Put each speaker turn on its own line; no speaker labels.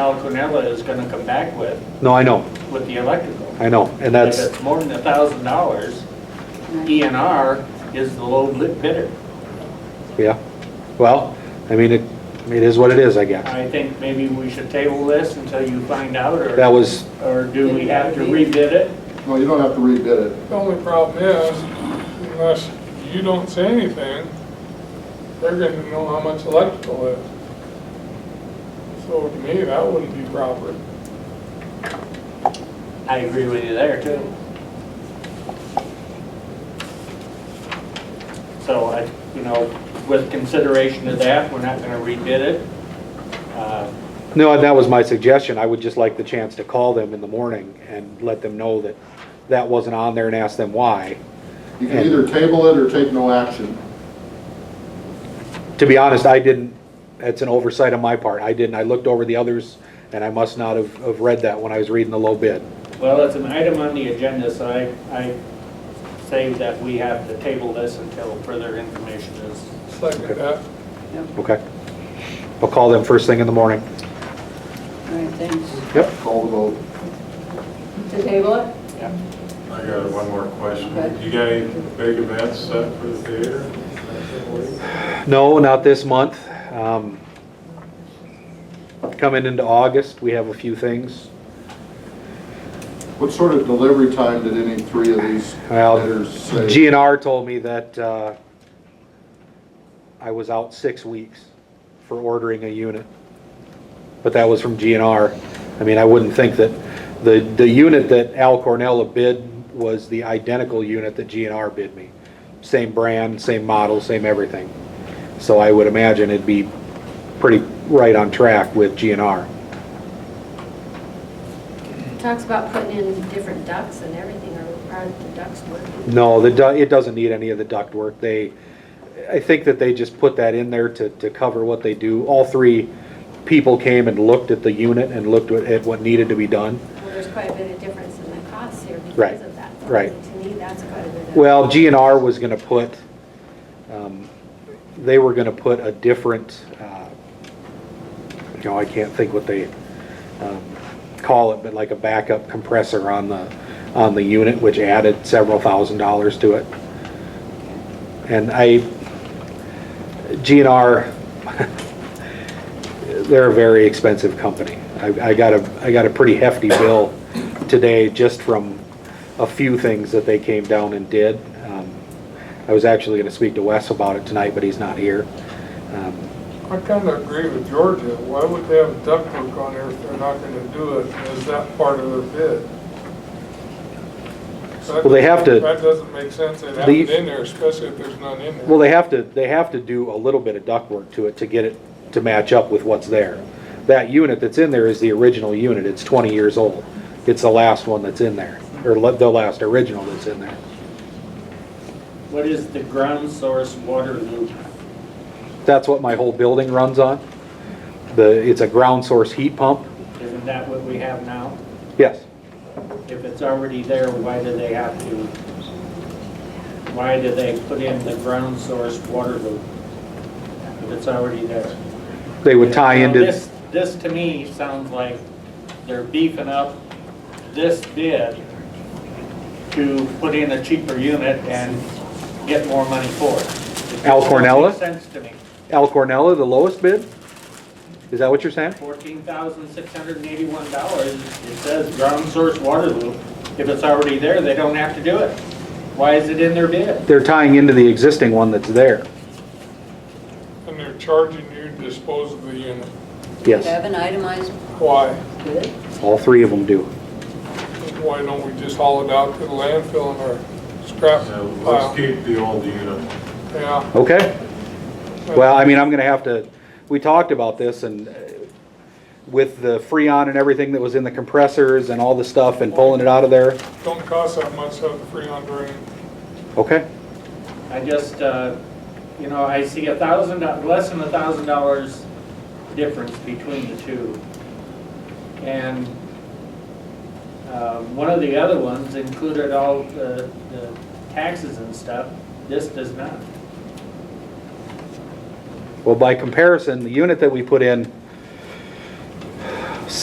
Now Quinella is gonna come back with,
No, I know,
with the electrical.
I know, and that's,
If it's more than a thousand dollars, ENR is the low bid- bidder.
yeah. Well, I mean, it, it is what it is, I guess.
I think maybe we should table this until you find out,
That
or,
was,
or do we have to rebid it?
No, you don't have to rebid it.
The only problem is, unless you don't say anything, they're gonna know how much electrical is. So to me, that wouldn't be proper.
I agree with you there too. So I, you know, with consideration of that, we're not gonna rebid it. Uh,
no, that was my suggestion. I would just like the chance to call them in the morning and let them know that that wasn't on there and ask them why.
You can either table it or take no action.
To be honest, I didn't, that's an oversight on my part. I didn't, I looked over the others and I must not have, have read that when I was reading the low bid.
Well, it's an item on the agenda, so I, I say that we have to table this until further information is.
Second that.
Okay? I'll call them first thing in the morning.
All right, thanks.
Yep.
Call the vote.
To table it?
Yeah.
I got one more question.
Okay.
You got any big events set for the theater?
No, not this month. Um, Coming into August, we have a few things.
What sort of delivery time did any three of these
Well,
bidders say?
GNR told me that uh, I was out six weeks for ordering a unit. But that was from GNR. I mean, I wouldn't think that, the, the unit that Al Cornella bid was the identical unit that GNR bid me. Same brand, same model, same everything. So I would imagine it'd be pretty right on track with GNR.
Talks about putting in different ducts and everything, or are the ducts working?
No, the, du- it doesn't need any of the ductwork. They, I think that they just put that in there to, to cover what they do. All three people came and looked at the unit and looked at at what needed to be done.
Well, there's quite a bit of difference in the costs here
Right,
because of that.
right.
To me, that's quite a bit of.
Well, GNR was gonna put, um, they were gonna put a different, uh, you know, I can't think what they, um, call it, but like a backup compressor on the, on the unit, which added several thousand dollars to it. And I, GNR, they're a very expensive company. I, I got a, I got a pretty hefty bill today just from a few things that they came down and did. Um, I was actually gonna speak to Wes about it tonight, but he's not here. Um,
I kinda agree with Georgia. Why would they have ductwork on there if they're not gonna do it? Is that part of their bid? That
Well, they have to-
doesn't- That doesn't make sense. They'd have
Leave-
it in there, especially if there's none in there.
Well, they have to, they have to do a little bit of ductwork to it to get it to match up with what's there. That unit that's in there is the original unit, it's 20 years old. It's the last one that's in there, or le- the last original that's in there.
What is the ground source water loop?
That's what my whole building runs on. The, it's a ground source heat pump.
Isn't that what we have now?
Yes,
If it's already there, why do they have to? Why do they put in the ground source water loop? If it's already there.
they would tie
Now,
into.
This, this to me sounds like they're beefing up this bid to put in a cheaper unit and get more money for it.
Al Cornella?
Makes sense to me.
Al Cornella, the lowest bid? Is that what you're saying?
Fourteen thousand six hundred and eighty-one dollars, it says ground source water loop. If it's already there, they don't have to do it. Why is it in their bid?
They're tying into the existing one that's there.
And they're charging you to dispose of the unit.
Do you
Yes,
have an itemized
Why?
bid?
all three of them do.
Why don't we just haul it out to the landfill in our scrap
So
pile?
let's keep the old unit.
Yeah.
Okay? Well, I mean, I'm gonna have to, we talked about this and uh, with the freon and everything that was in the compressors and all the stuff and pulling it out of there.
Don't cost that much, have the freon drain.
Okay?
I just, uh, you know, I see a thousand, less than a thousand dollars difference between the two. And uh, one of the other ones included all the the taxes and stuff. This does not.
Well, by comparison, the unit that we put in